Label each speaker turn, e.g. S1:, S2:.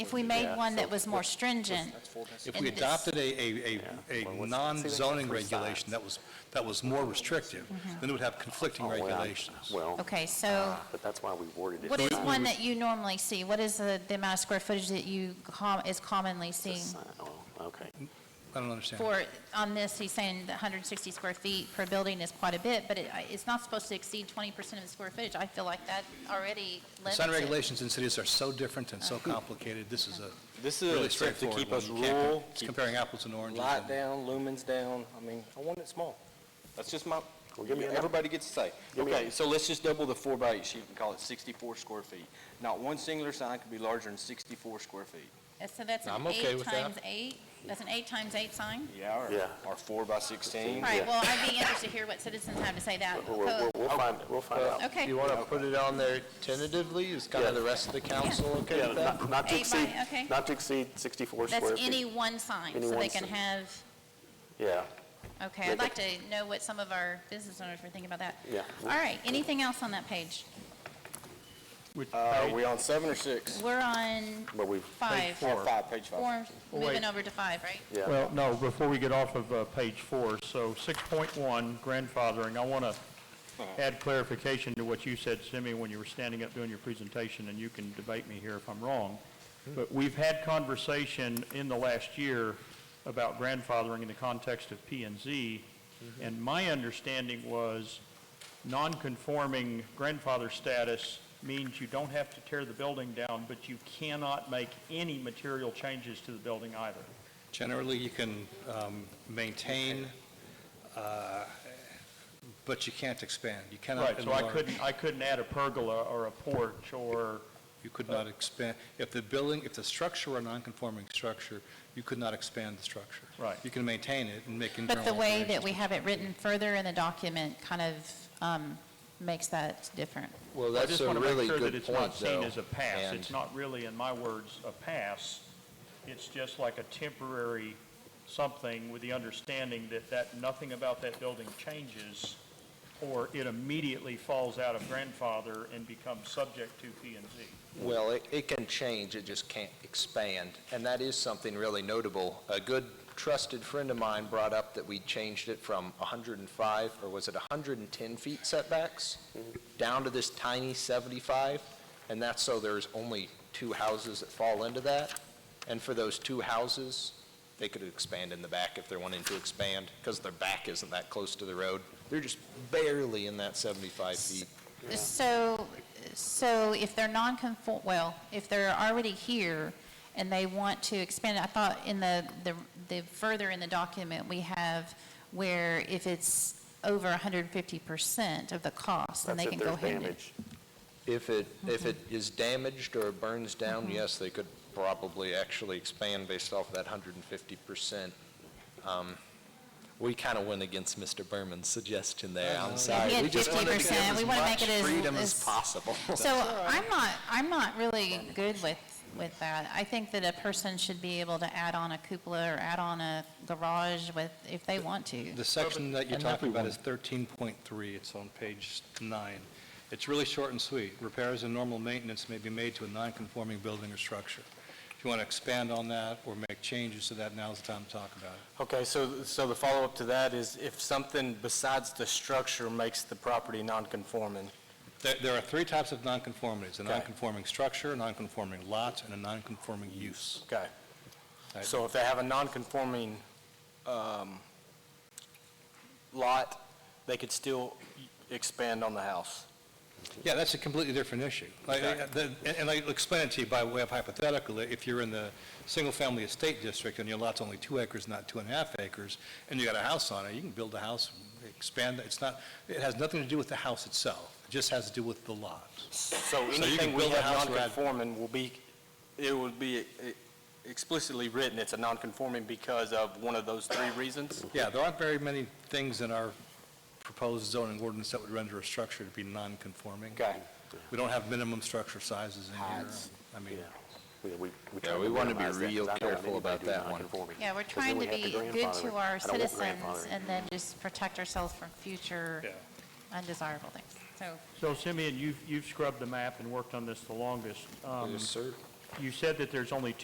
S1: if we made
S2: Yeah.
S1: one that was more stringent,
S2: If
S3: If
S1: And
S3: we
S1: this-
S3: adopted a, a, a,
S2: Well,
S3: a
S2: what's-
S3: non-zoning
S2: See, like the
S3: regulation that was, that was more restrictive,
S1: Mm-hmm.
S3: then it would have conflicting regulations.
S2: Oh, Well,
S1: okay, so
S2: ah, but that's why we worded it.
S1: what is
S2: that way.
S1: one that you normally see? What is the, the amount of square footage that you com, is commonly
S2: The
S1: seen?
S2: sign- oh, Okay.
S3: I don't understand.
S1: For, on this, he's saying the 160 square feet per building is quite a bit, but it, it's not supposed to exceed 20% of the square footage. I feel like that already limits
S3: Sign
S1: it.
S3: regulations in cities are so different and so
S1: Uh-huh.
S3: complicated, this is a
S4: This is an
S3: really
S4: attempt to
S3: straightforward
S4: keep us
S3: one. You can't-
S4: rural,
S3: it's
S4: keep
S3: comparing apples and oranges.
S4: light
S3: and-
S4: down, lumens down. I mean, I want it small. That's just my,
S2: Well, give me a-
S4: everybody gets to say.
S2: Give me a-
S4: Okay, so let's just double the four by eight sheet and call it 64 square feet. Not one singular sign could be larger than 64 square feet.
S1: Uh, So that's an
S5: I'm okay
S1: eight
S5: with that.
S1: times eight? That's an eight times eight sign?
S4: Yeah,
S2: Yeah.
S4: or, or four by 16.
S1: All right, well, I'd be interested to hear what citizens have to say that.
S2: We'll- We'll we'll find, we'll find out.
S1: Okay.
S5: You want to put it on there tentatively? Is kind
S2: Yeah.
S5: of the rest of the council okay
S2: Yeah,
S5: with that?
S2: not- Not to
S1: Eight by-
S2: exceed,
S1: okay.
S2: not to exceed 64 square feet.
S1: That's any one sign,
S2: Any
S1: so they
S2: one
S1: can
S2: sign.
S1: have,
S2: Yeah,
S1: okay, I'd like to know what some of our business owners were thinking about that.
S2: yeah.
S1: All right, anything else on that page?
S4: Uh, we on seven or six?
S1: We're on
S2: But we've,
S1: five.
S4: Or Five, page five.
S1: Four, moving over to five, right?
S2: yeah.
S6: Well, no, before we get off of uh, page four, so 6.1, grandfathering, I want to add clarification to what you said, Simi, when you were standing up doing your presentation, and you can debate me here if I'm wrong, but we've had conversation in the last year about grandfathering in the context of P and Z, and my understanding was non-conforming grandfather status means you don't have to tear the building down, but you cannot make any material changes to the building either.
S3: Generally, you can um, maintain, uh, but you can't expand. You cannot
S6: Right, so I
S3: enlarge.
S6: couldn't, I couldn't add a pergola or a porch or,
S3: You could not expand, if the building, if the structure were a non-conforming structure, you could not expand the structure.
S6: Right.
S3: You can maintain it and make internal
S1: But the way that
S3: alterations.
S1: we have it written further in the document kind of um, makes that different.
S5: Well,
S6: I
S5: that's
S6: just
S5: a
S6: want to make
S5: really
S6: sure that
S5: good
S6: it's not
S5: point, though.
S6: seen as a pass. It's
S5: And
S6: not really, in my words, a pass. It's just like a temporary something with the understanding that that, nothing about that building changes or it immediately falls out of grandfather and becomes subject to P and Z.
S5: Well, it, it can change, it just can't expand, and that is something really notable. A good trusted friend of mine brought up that we changed it from 105, or was it 110 feet setbacks,
S6: Mm-hmm.
S5: down to this tiny 75, and that's so there's only two houses that fall into that. And for those two houses, they could expand in the back if they're wanting to expand, because their back isn't that close to the road. They're just barely in that 75 feet.
S1: So, so if they're non-conform, well, if they're already here and they want to expand, I thought in the, the the further in the document, we have where if it's over 150% of the cost, then
S2: That's
S1: they can
S2: if
S1: go
S2: there's
S1: ahead and.
S2: damage.
S5: If it, if it is damaged or burns down, yes, they could probably actually expand based off that 150%. Um, We kind of went against Mr. Berman's suggestion there, I'm sorry.
S1: had
S5: We just wanted to give
S1: 50%, we
S5: as
S1: wanna make
S5: much
S1: it as-
S5: freedom as
S1: as-
S5: possible.
S1: So I'm not, I'm not really good with, with that. I think that a person should be able to add on a cupola or add on a garage with, if they want to.
S3: The section that you're
S5: And
S3: talking about is 13.3, it's on page nine. It's really short and sweet. Repairs and normal maintenance may be made to a non-conforming building or structure. If you want to expand on that or make changes to that, now's the time to talk about it.
S7: Okay, so, so the follow-up to that is if something besides the structure makes the property non-conforming,
S3: There- There are three types of nonconformities, a
S7: Okay.
S3: nonconforming structure, a nonconforming lot, and a nonconforming use.
S7: okay.
S3: Right.
S7: So if they have a non-conforming um, lot, they could still expand on the house.
S3: Yeah, that's a completely different issue. Like, uh, the- And and I'll explain it to you by way of hypothetical. If you're in the single-family estate district and your lot's only two acres, not two and a half acres, and you got a house on it, you can build a house, expand, it. it's not, it has nothing to do with the house itself. It just has to do with the lot.
S7: So
S3: you can
S7: anything we
S3: build a
S7: have
S3: house or add-
S7: non-conforming will be, it would be e- explicitly written, it's a non-conforming because of one of those three reasons?
S3: Yeah, there aren't very many things in our proposed zoning ordinance that would render a structure to be non-conforming.
S7: Okay.
S3: We don't have minimum structure sizes in here.
S7: Heights.
S3: I mean,
S2: Yeah. We- we- we
S5: Yeah,
S2: tried
S5: we wanna be
S2: minimize that, 'cause
S5: real
S2: I don't want
S5: careful
S2: anybody
S5: about
S2: doing
S5: that one.
S2: non-conforming.
S1: Yeah, we're
S2: 'Cause then
S1: trying
S2: we
S1: to
S2: have
S1: be good to
S2: grandfather. I
S1: our
S2: don't want
S1: citizens
S2: grandfathering.
S1: and then just protect ourselves from future
S3: Yeah.
S1: undesirable things. So
S6: So Simeon, you've, you've scrubbed the map and worked on this the longest. Um,
S5: Yes, sir.
S6: You said that there's only